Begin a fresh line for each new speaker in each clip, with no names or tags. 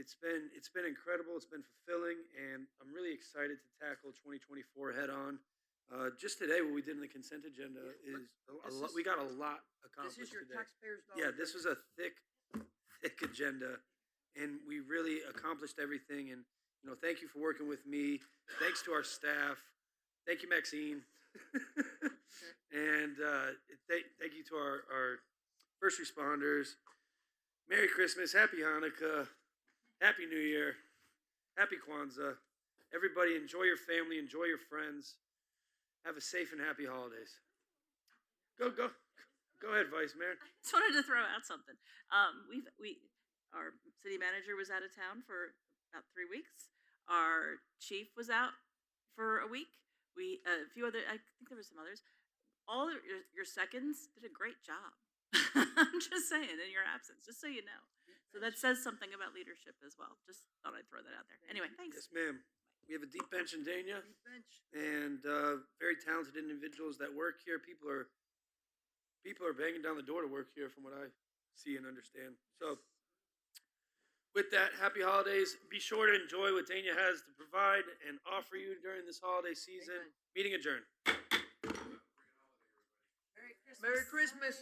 It's been it's been incredible. It's been fulfilling, and I'm really excited to tackle 2024 head on. Uh, just today, what we did in the consent agenda
Yeah,
is a, a
this
lot.
is-
We got a lot
This
accomplished
is your
Oh, today.
taxpayers' dollars.
yeah, this was a thick, thick agenda, and we really accomplished everything. And you know, thank you for working with me. Thanks to our staff. Thank you, Maxine. and uh, thank thank you to our, our first responders. Merry Christmas, Happy Hanukkah, Happy New Year, Happy Kwanzaa. Everybody, enjoy your family, enjoy your friends. Have a safe and happy holidays. Go, go, go ahead, Vice Mayor.
just wanted to throw out something. Um, we've we our city manager was out of town for about three weeks. Our chief was out for a week. We a few other I think there were some others. All of your, your seconds did a great job. I'm just saying in your absence, just so you know. So that says something about leadership as well. Just thought I'd throw that out there. Anyway, thanks.
Yes, ma'am. We have a deep bench in Dania
Bench.
and uh, very talented individuals that work here. People are people are banging down the door to work here, from what I see and understand. So, with that, happy holidays. Be sure to enjoy what Dania has to provide and offer you during this holiday season.
Amen.
Meeting adjourned.
Merry Christmas.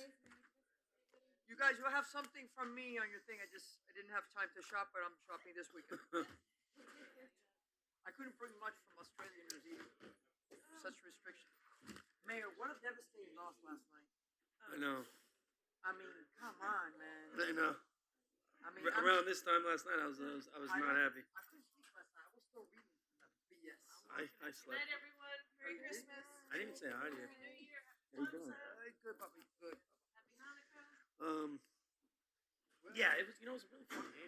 You guys will have something from me on your thing. I just, I didn't have time to shop, but I'm shopping this weekend. I couldn't bring much from Australia and New Zealand. Such restrictions. Mayor, what a devastating loss last night.
I know.
I mean, come on, man.
I know.
I mean,
R-
I'm-
around this time last night, I was I was, I was
I
not
know.
happy.
I couldn't sleep last night. I was still reading from that BS.
I, I
Good
slept.
night, everyone. Merry
Okay.
Christmas.
I didn't even say hi to you.
Happy New Year.
How you doing?
Uh, Good, puppy, good.
Happy Hanukkah.
Um, yeah, it was. You know, it was a really fun game.